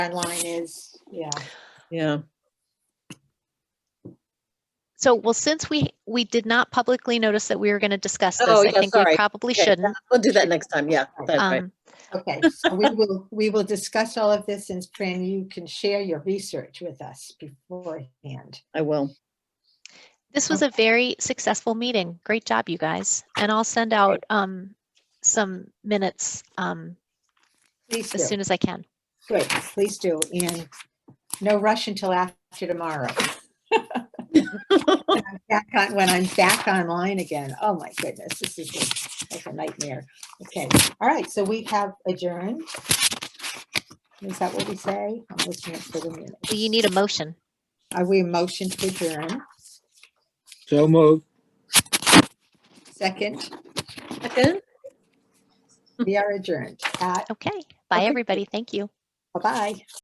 timeline is, yeah. Yeah, So, well, since we, we did not publicly notice that we were going to discuss this, Oh, I yeah, think we sorry. probably Okay, shouldn't. we'll do that next time. Yeah, that's right. Um, Okay, so we will, we will discuss all of this and Fran, you can share your research with us beforehand. I will. This Oh. was a very successful meeting. Great job, you guys. And I'll send out um, some minutes um, Please as soon do, as I can. great, please do, and no rush until after tomorrow. When I'm back on- When I'm back online again, oh my goodness, this is just like a nightmare. Okay, all right, so we have adjourned. Is that what we say? I'm looking at for the minutes. Do You need a motion. Are we a motion to adjourn? So moved. Second, Second? we are adjourned at Okay. Bye, Okay. everybody. Thank you. Bye-bye.